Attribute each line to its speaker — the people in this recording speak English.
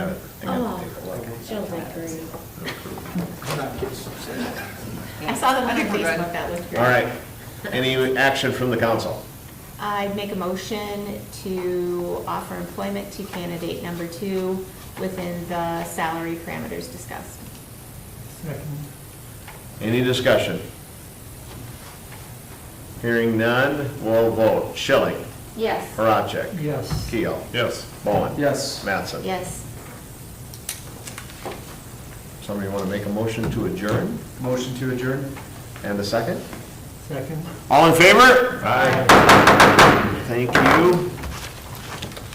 Speaker 1: Oh.
Speaker 2: Still agree.
Speaker 3: I saw the one on
Speaker 4: think we're good.
Speaker 3: Facebook that looked great.
Speaker 1: All right. Any action from the council?
Speaker 3: I'd make a motion to offer employment to candidate number two within the salary parameters discussed.
Speaker 1: Any discussion? Hearing none, we'll vote. Schilling,
Speaker 2: Yes.
Speaker 1: Horacek,
Speaker 5: Yes.
Speaker 1: Keel. Yes. Bowen.
Speaker 5: Yes.
Speaker 1: Mattson.
Speaker 3: Yes.
Speaker 1: Somebody want to make a motion to adjourn?
Speaker 5: Motion to adjourn?
Speaker 1: And a second?
Speaker 5: Second.
Speaker 1: All in favor? Aye. Thank you.